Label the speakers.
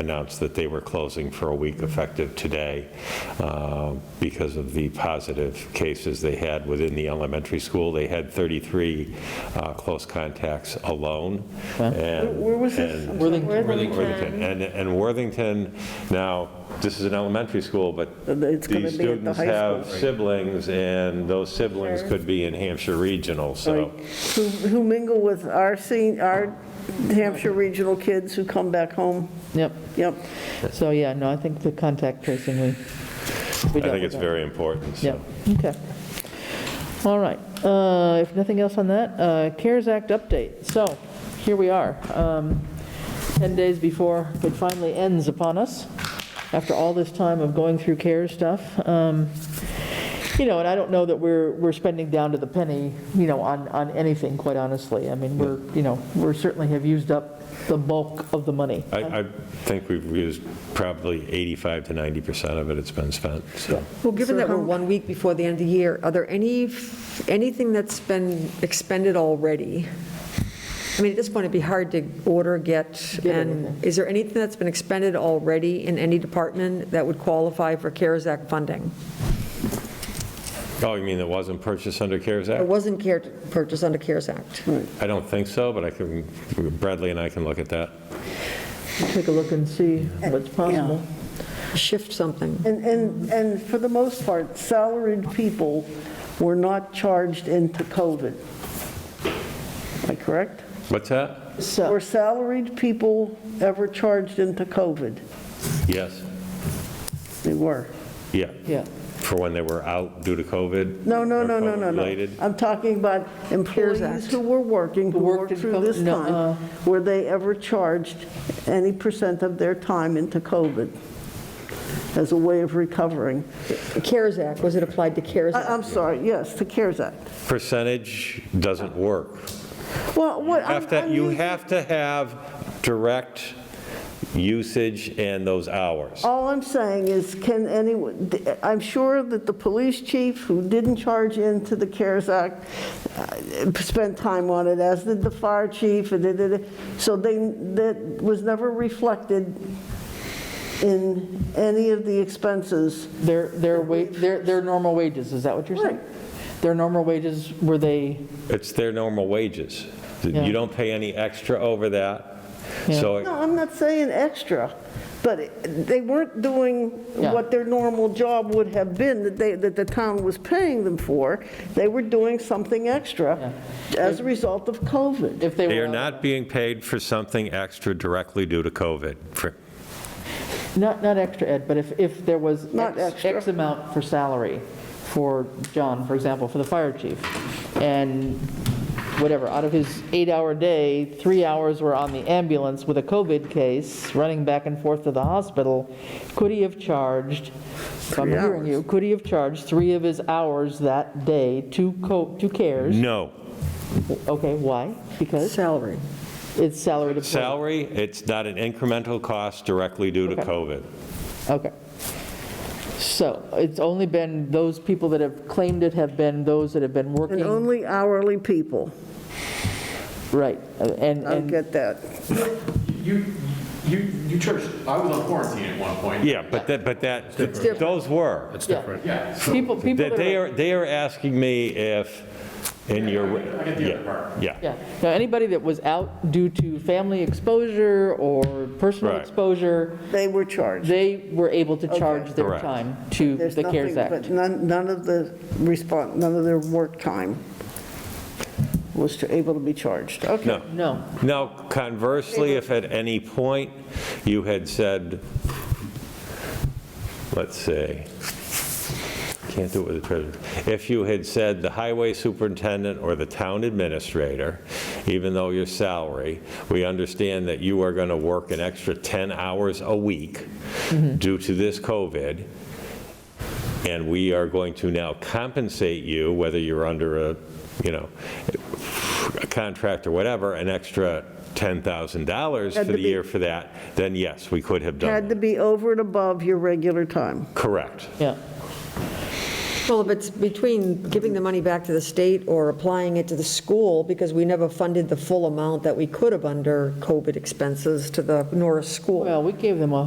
Speaker 1: announced that they were closing for a week effective today uh, because of the positive cases they had within the elementary school. They had 33 uh, close contacts alone. And-
Speaker 2: Where was this?
Speaker 1: and-
Speaker 2: Worthington.
Speaker 1: Worthington. And, and Worthington, now, this is an elementary school, but
Speaker 2: Uh, It's gonna
Speaker 1: these
Speaker 2: be at the
Speaker 1: students
Speaker 2: high
Speaker 1: have
Speaker 2: school.
Speaker 1: siblings, and those siblings
Speaker 3: Sure.
Speaker 1: could be in Hampshire Regional, so.
Speaker 2: Who who mingle with our senior, our Hampshire regional kids who come back home.
Speaker 4: Yep,
Speaker 2: Yep.
Speaker 4: so, yeah, no, I think the contact tracing, we.
Speaker 1: I think it's very important, so.
Speaker 4: Yeah, okay. All right, uh, if nothing else on that, uh, CARES Act update. So, here we are, um, 10 days before it finally ends upon us, after all this time of going through CARES stuff. Um, You know, and I don't know that we're, we're spending down to the penny, you know, on, on anything, quite honestly. I mean, we're, you know, we're certainly have used up the bulk of the money.
Speaker 1: I, I think we've used probably 85 to 90% of it, it's been spent, so.
Speaker 5: Well, given that we're one week before the end of the year, are there any, anything that's been expended already? I mean, at this point, it'd be hard to order, get,
Speaker 4: Get
Speaker 5: and is there anything that's been expended already in any department that would qualify for CARES Act funding?
Speaker 1: Oh, you mean it wasn't purchased under CARES
Speaker 5: It
Speaker 1: Act?
Speaker 5: wasn't care, purchased under CARES Act.
Speaker 1: I don't think so, but I can, Bradley and I can look at that.
Speaker 4: Take a look and see what's possible.
Speaker 5: Shift something.
Speaker 2: And, and, and for the most part, salaried people were not charged into COVID. Am I correct?
Speaker 1: What's that?
Speaker 4: So.
Speaker 2: Were salaried people ever charged into COVID?
Speaker 1: Yes,
Speaker 2: They were.
Speaker 1: yeah,
Speaker 4: Yeah,
Speaker 1: for when they were out due to COVID.
Speaker 2: No, no,
Speaker 1: or
Speaker 2: no, no, no, no.
Speaker 1: COVID-related.
Speaker 2: I'm talking about employees
Speaker 5: Act.
Speaker 2: who were working, who
Speaker 4: Who worked
Speaker 2: worked
Speaker 4: in
Speaker 2: through
Speaker 4: COVID?
Speaker 2: this
Speaker 4: No, uh,
Speaker 2: time. Were they ever charged any percent of their time into COVID as a way of recovering?
Speaker 5: CARES Act, was it applied to CARES
Speaker 2: I-
Speaker 5: Act?
Speaker 2: I'm sorry, yes, the CARES Act.
Speaker 1: Percentage doesn't work.
Speaker 2: Well, what, I'm-
Speaker 1: Have to,
Speaker 2: I'm
Speaker 1: you
Speaker 2: using-
Speaker 1: have to have direct usage and those hours.
Speaker 2: All I'm saying is, can anyone, I'm sure that the police chief, who didn't charge into the CARES Act, uh, spent time on it, as did the fire chief, and da, da, da. so they, that was never reflected in any of the expenses.
Speaker 4: their, their wa, their, their normal wages, is that what you're saying? Their normal wages, were they,
Speaker 1: It's their normal wages.
Speaker 4: Yeah.
Speaker 1: You don't pay any extra over that,
Speaker 4: Yeah.
Speaker 1: so it
Speaker 2: No, I'm not saying extra, but they weren't doing
Speaker 4: Yeah.
Speaker 2: what their normal job would have been, that they, that the town was paying them for. They were doing something extra as a result of COVID.
Speaker 4: if they were?
Speaker 1: They are not being paid for something extra directly due to COVID. For-
Speaker 4: Not, not extra, Ed, but if, if there was
Speaker 2: Not
Speaker 4: X-
Speaker 2: extra.
Speaker 4: X amount for salary for John, for example, for the fire chief, and whatever, out of his eight-hour day, three hours were on the ambulance with a COVID case, running back and forth to the hospital, could he have charged, if I'm
Speaker 2: Three
Speaker 4: hearing
Speaker 2: hours.
Speaker 4: you, could he have charged three of his hours that day to co, to CARES?
Speaker 1: No.
Speaker 2: Mm-hmm.
Speaker 4: Okay, why?
Speaker 5: uh.
Speaker 4: Because?
Speaker 5: Salary.
Speaker 4: It's salary to employee.
Speaker 1: Salary, it's not an incremental cost directly due to
Speaker 4: Okay.
Speaker 1: COVID.
Speaker 4: Okay. So it's only been, those people that have claimed it have been those that have been
Speaker 2: And
Speaker 4: working,
Speaker 2: only hourly people.
Speaker 4: right, and,
Speaker 2: I
Speaker 4: and,
Speaker 2: get that.
Speaker 6: You, you, you church, I was on quarantine at one point.
Speaker 1: Yeah, but that, but that, those were.
Speaker 4: yeah.
Speaker 6: Yeah, so
Speaker 4: People, people
Speaker 1: They
Speaker 4: that
Speaker 1: they
Speaker 4: are,
Speaker 1: are, they are asking me if, in your,
Speaker 6: I get the other part.
Speaker 1: yeah.
Speaker 4: yeah, now, anybody that was out due to family exposure or personal
Speaker 1: Right.
Speaker 4: exposure,
Speaker 2: They were charged.
Speaker 4: they were able to charge their
Speaker 1: Correct.
Speaker 4: time to
Speaker 2: There's
Speaker 4: the CARES
Speaker 2: nothing-
Speaker 4: Act.
Speaker 2: But none, none of the response, none of their work time was to- able to be charged. Okay.
Speaker 1: No.
Speaker 4: No,
Speaker 1: Now, conversely, if at any point you had said, let's see, can't do it with the treasurer, if you had said the highway superintendent or the town administrator, even though your salary, we understand that you are going to work an extra 10 hours a week due to this COVID, and we are going to now compensate you, whether you're under a, you know, a contract or whatever, an extra $10,000
Speaker 2: Had
Speaker 1: for
Speaker 2: to
Speaker 1: the
Speaker 2: be-
Speaker 1: year for that, then yes, we could have done
Speaker 2: Had to
Speaker 1: that.
Speaker 2: be over and above your regular time.
Speaker 1: Correct.
Speaker 4: yeah.
Speaker 5: Well, if it's between giving the money back to the state or applying it to the school, because we never funded the full amount that we could have under COVID expenses to the Norris School.
Speaker 4: Well, we gave them a